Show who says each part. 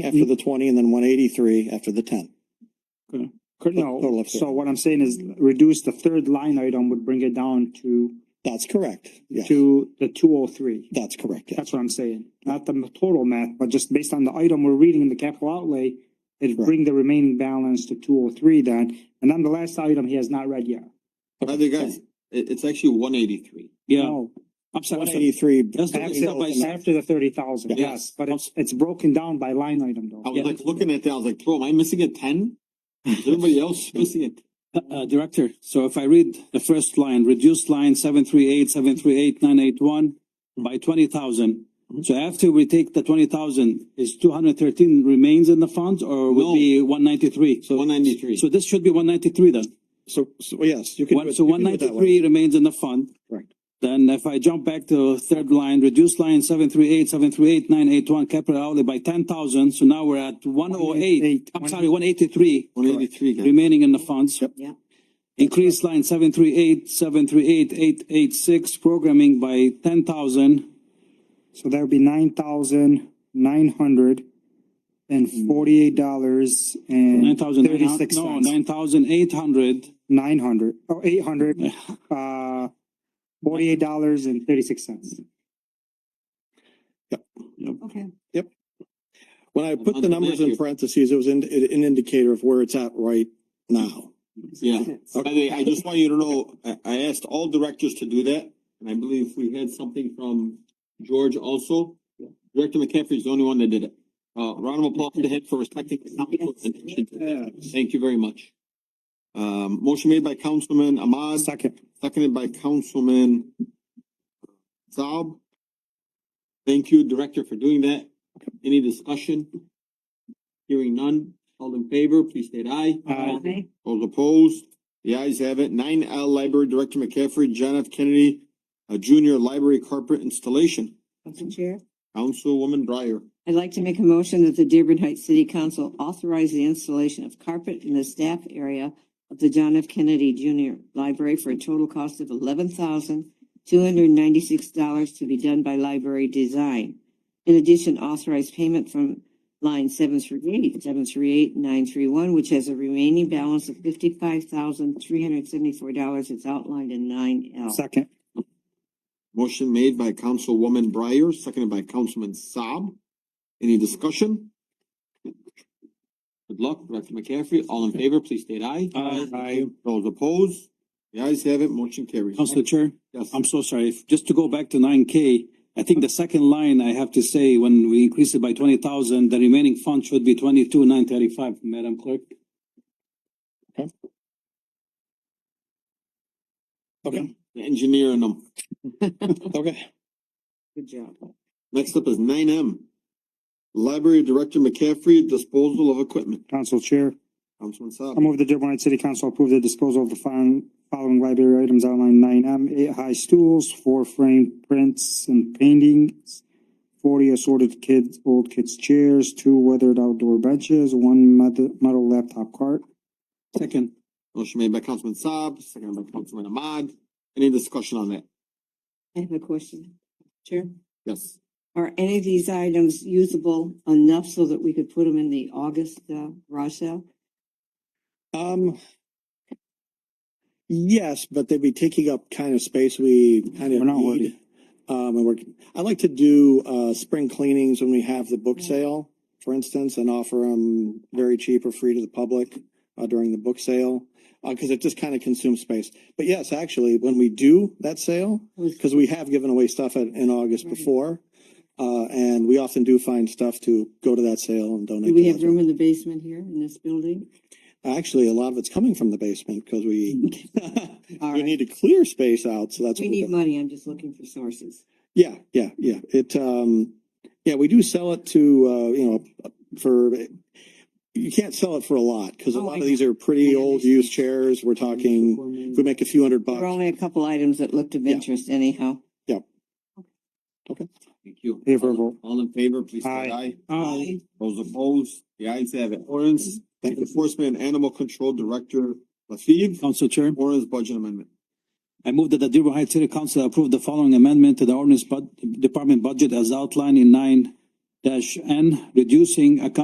Speaker 1: after the twenty and then one eighty-three after the ten.
Speaker 2: Cor-
Speaker 1: Total
Speaker 2: No,
Speaker 1: of
Speaker 2: so
Speaker 1: thirty.
Speaker 2: what I'm saying is reduce the third line item would bring it down to,
Speaker 1: That's correct. Yes,
Speaker 2: to the two oh three.
Speaker 1: that's correct. yes.
Speaker 2: That's what I'm saying. Not the total math, but just based on the item we're reading in the capital outlay, it'd
Speaker 1: Right.
Speaker 2: bring the remaining balance to two oh three then. And then the last item he has not read yet.
Speaker 3: I think that's, it, it's actually one eighty-three.
Speaker 4: Yeah,
Speaker 2: No,
Speaker 4: I'm sorry,
Speaker 1: One
Speaker 4: I'm sorry.
Speaker 1: eighty-three.
Speaker 4: That's the-
Speaker 2: after,
Speaker 4: After-
Speaker 2: after the thirty thousand,
Speaker 4: Yeah.
Speaker 2: yes, but it's, it's broken down by line item
Speaker 3: I
Speaker 2: though.
Speaker 3: was like looking at that, I was like, bro, am I missing a ten? Is everybody else missing it?
Speaker 4: Uh, uh, Director, so if I read the first line, reduced line seven three eight, seven three eight, nine eight one by twenty thousand. So after we take the twenty thousand, is two hundred thirteen remains in the funds or
Speaker 3: No.
Speaker 4: will be one ninety-three? So,
Speaker 3: One ninety-three.
Speaker 4: so this should be one ninety-three then.
Speaker 1: So, so yes, you can. do
Speaker 4: One,
Speaker 1: it-
Speaker 4: so
Speaker 1: you
Speaker 4: one
Speaker 1: can do it that way.
Speaker 4: ninety-three remains in the fund.
Speaker 1: Correct.
Speaker 4: Then if I jump back to third line, reduce line seven three eight, seven three eight, nine eight one, capital outlay by ten thousand, so now we're at one oh
Speaker 2: 188.
Speaker 4: eight. I'm sorry, one eighty-three
Speaker 3: One eighty-three, guys.
Speaker 4: remaining in the funds.
Speaker 1: Yep.
Speaker 5: Yeah.
Speaker 4: Increase line seven three eight, seven three eight, eight eight six, programming by ten thousand.
Speaker 2: So that would be nine thousand nine hundred and forty-eight dollars
Speaker 4: Nine
Speaker 2: and
Speaker 4: thousand,
Speaker 2: thirty-six
Speaker 4: no,
Speaker 2: cents.
Speaker 4: nine thousand eight hundred.
Speaker 2: Nine hundred, oh, eight hundred, uh, forty-eight dollars and thirty-six cents.
Speaker 5: Okay.
Speaker 1: When I put
Speaker 3: On
Speaker 1: the
Speaker 3: the
Speaker 1: numbers in
Speaker 3: menu.
Speaker 1: parentheses, it was an, an indicator of where it's at right now.
Speaker 3: Yeah.
Speaker 5: Yes.
Speaker 3: By the way, I just want you to know, I, I asked all directors to do that, and I believe we had something from George also. Director McCaffrey's the only one that did it. Uh, round of applause to him for respecting the council's intention. Thank you very much. Um, motion made by Councilman Ahmad,
Speaker 2: Second,
Speaker 3: seconded by Councilman Saab. Thank you, Director, for doing that. Any discussion? Hearing none, all in favor, please state aye.
Speaker 2: uh,
Speaker 5: Okay.
Speaker 3: Those opposed, the ayes have it. Nine L Library Director McCaffrey, John F. Kennedy, a junior library carpet installation.
Speaker 5: Council Chair,
Speaker 3: Councilwoman Breyer.
Speaker 5: I'd like to make a motion that the Dearborn Heights City Council authorize the installation of carpet in the staff area of the John F. Kennedy Junior Library for a total cost of eleven thousand two hundred ninety-six dollars to be done by Library Design. In addition, authorize payment from line seven three eight, seven three eight, nine three one, which has a remaining balance of fifty-five thousand three hundred seventy-four dollars as outlined in nine L.
Speaker 2: second,
Speaker 3: Motion made by Councilwoman Breyer, seconded by Councilman Saab. Any discussion? Good luck, Director McCaffrey. All in favor, please state aye.
Speaker 4: Aye.
Speaker 2: Aye.
Speaker 3: Those opposed, the ayes have it. Motion carries.
Speaker 4: Council Chair?
Speaker 3: Yes.
Speaker 4: I'm so sorry. If- Just to go back to nine K, I think the second line, I have to say, when we increase it by twenty thousand, the remaining fund should be twenty-two, nine thirty-five, Madam Clerk.
Speaker 1: Okay,
Speaker 3: The Engineer in them.
Speaker 1: okay.
Speaker 5: Good job.
Speaker 3: Next up is nine M. Library Director McCaffrey, disposal of equipment.
Speaker 2: council chair.
Speaker 3: Councilman
Speaker 2: I
Speaker 3: Saab.
Speaker 2: move the Dearborn Heights City Council approve the disposal of the following, following library items outlined nine M, eight high stools, four framed prints and paintings, forty assorted kids, old kids chairs, two weathered outdoor benches, one metal, metal laptop cart.
Speaker 4: Second.
Speaker 3: Motion made by Councilman Saab, seconded by Councilman Ahmad. Any discussion on that?
Speaker 5: I have a question, Chair.
Speaker 3: Yes.
Speaker 5: Are any of these items usable enough so that we could put them in the August uh, garage sale?
Speaker 1: Um. Yes, but they'd be taking up kind of space we kind of
Speaker 2: We're not
Speaker 1: need.
Speaker 2: worried.
Speaker 1: Um, and we're, I like to do, uh, spring cleanings when we have the book
Speaker 5: Yeah.
Speaker 1: sale, for instance, and offer them very cheap or free to the public, uh, during the book sale. Uh, cause it just kind of consumes space. But yes, actually, when we do that sale,
Speaker 5: Was-
Speaker 1: because we have given away stuff at, in August
Speaker 5: Right.
Speaker 1: before. Uh, and we often do find stuff to go to that sale and donate.
Speaker 5: Do we
Speaker 1: to
Speaker 5: have
Speaker 1: that.
Speaker 5: room in the basement here in this building?
Speaker 1: Actually, a lot of it's coming from the basement because we,
Speaker 5: Mm-hmm. All
Speaker 1: we
Speaker 5: right.
Speaker 1: need to clear space out. So that's
Speaker 5: We
Speaker 1: what we
Speaker 5: need
Speaker 1: do.
Speaker 5: money. I'm just looking for sources.
Speaker 1: Yeah, yeah, yeah. It, um, yeah, we do sell it to, uh, you know, for, you can't sell it for a lot because a
Speaker 5: Oh,
Speaker 1: lot
Speaker 5: I
Speaker 1: of
Speaker 5: know.
Speaker 1: these are pretty
Speaker 5: I
Speaker 1: old used
Speaker 5: understand.
Speaker 1: chairs. We're talking, if we make a few hundred
Speaker 5: There were
Speaker 1: bucks.
Speaker 5: only a couple items that looked of
Speaker 1: Yeah.
Speaker 5: interest anyhow.
Speaker 3: Thank you.
Speaker 2: Here for a vote.
Speaker 3: All in favor, please say
Speaker 2: Aye.
Speaker 3: aye.
Speaker 1: Uh,
Speaker 5: Aye.
Speaker 3: Those opposed, the ayes have it. Ordinance
Speaker 1: Thank you.
Speaker 3: Enforcement and Animal Control Director Lefebvre,
Speaker 4: Council Chair,
Speaker 3: ordinance budget amendment.
Speaker 4: I move that the Dearborn Heights City Council approve the following amendment to the ordinance bud- department budget as outlined in nine dash N, reducing account